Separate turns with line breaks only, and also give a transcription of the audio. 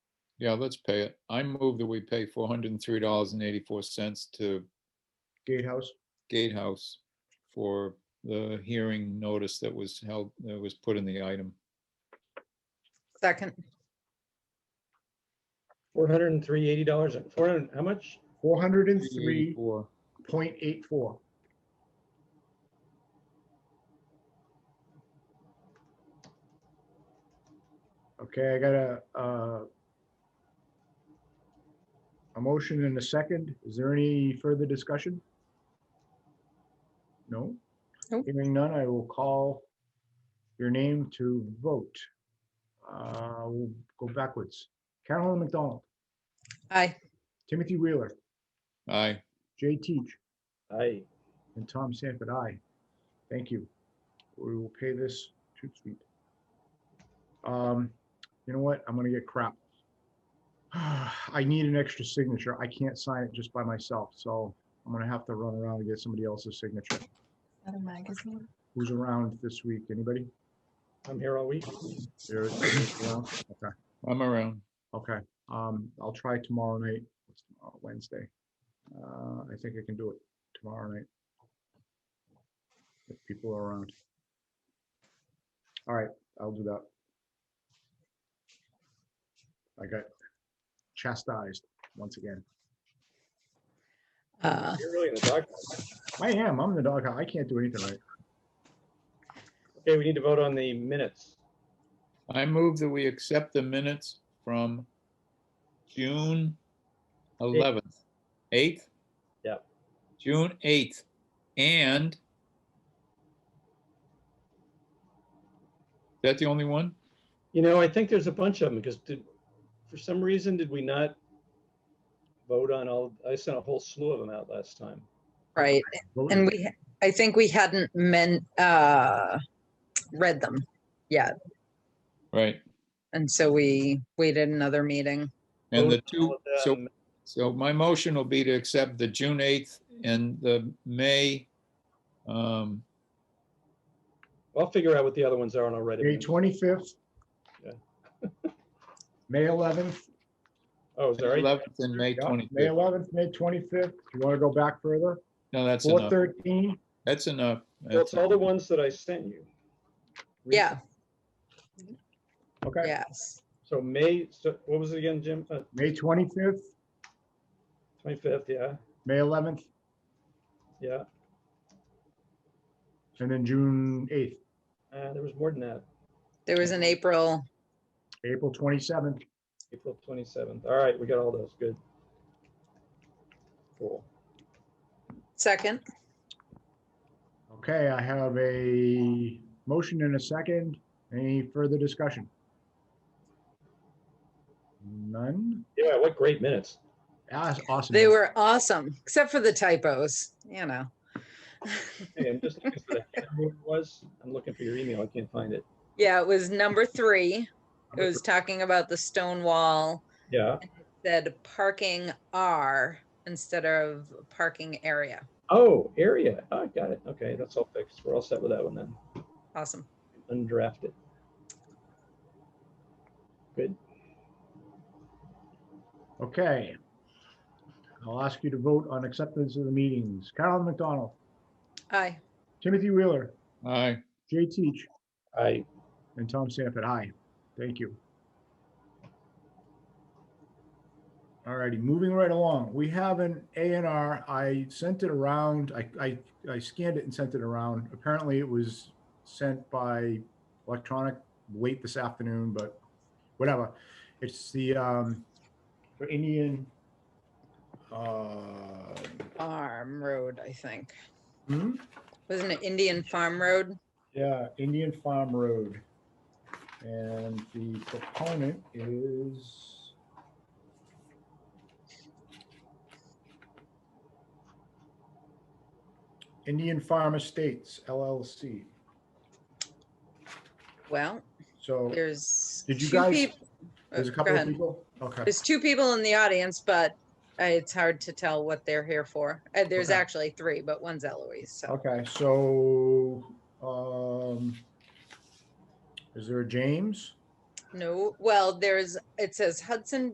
Yeah, let's pay it. I move that we pay four hundred and three dollars and eighty-four cents to
Gatehouse,
Gatehouse for the hearing notice that was held, that was put in the item.
Second,
Four hundred and three eighty dollars, four hundred, how much?
four hundred and three
384.
point eight four. Okay, I got a, uh, a motion and a second. Is there any further discussion? No?
Nope.
Hearing none, I will call your name to vote. Uh, We'll go backwards. Carolyn McDonald,
aye.
Timothy Wheeler,
Aye,
Jay Teach,
Aye.
And Tom Sanford, aye. Thank you. We will pay this to Sweet. Um, you know what? I'm gonna get crap. I need an extra signature. I can't sign it just by myself, so I'm gonna have to run around and get somebody else's signature.
Another magazine.
Who's around this week? Anybody?
I'm here all week.
There is- around? Okay.
I'm around.
Okay, um, I'll try tomorrow night, What's tomorrow? Wednesday. Uh, I think I can do it tomorrow night. If people are around. All right, I'll do that. I got chastised once again.
Uh,
You're really in the dog.
I am, I'm the dog, I can't do anything right.
Okay, we need to vote on the minutes.
I move that we accept the minutes from June eleventh, eighth?
Yeah.
June eighth and is that the only one?
You know, I think there's a bunch of them because did, for some reason, did we not vote on all, I sent a whole slew of them out last time.
right,
Vote-
and we, I think we hadn't meant, uh, read them yet,
Right.
and so we waited another meeting.
And the
Vote on all
two,
of them.
so So my motion will be to accept the June 8th and the May, um,
I'll figure out what the other ones are and I'll write
May
it. in.
twenty-fifth.
Yeah.
May eleventh,
Oh, sorry.
11th and May
May
25th.
eleventh, May twenty-fifth, you wanna go back further?
No, that's
Four
enough.
thirteen,
That's enough.
That's
That's
all the
enough.
ones that I sent you.
Yeah,
okay.
yes,
So May, so what was it again, Jim? Uh,
May 25th,
25th, yeah,
May 11th,
yeah.
and then June 8th,
Uh, There was more than that.
there was an April,
April 27th.
April 27th. All right, we got all those. Good. Cool.
second,
Okay, I have a motion and a second. Any further discussion? None?
Yeah, what great minutes.
Ah, Awesome.
they were awesome, except for the typos, you know.
Hey, I'm just looking for that. Who it was. I'm looking for your email. I can't find it.
Yeah, it was number three, it was talking about the stone wall,
Yeah.
said parking R instead of parking area,
Oh, area. Oh, I got it. Okay, that's all fixed. We're all set with that one then.
awesome.
Undrafted. Good.
Okay. I'll ask you to vote on acceptance of the meetings. Carolyn McDonald,
Aye,
Timothy Wheeler,
Aye.
Jay Teach,
I
and Tom Sanford. Aye. Thank you. All righty, moving right along. We have an A and R. I sent it around. I, I, I scanned it and sent it around. Apparently it was sent by electronic late this afternoon, but whatever. It's the, um, for Indian, uh,
Farm Road, I think.
hmm?
Wasn't it Indian Farm Road?
yeah, Indian Farm Road. And the proponent is Indian Farm Estates LLC.
Well,
So
there's.
Did you
two
guys-
peop- Oh,
there's a
go
couple of
ahead.
people. Okay,
There's two people in the audience, but uh, it's hard to tell what they're here for. Uh, There's
Okay.
actually three, but one's Eloise, so.
okay, so, um, is there a James?
No, well, there's, it says Hudson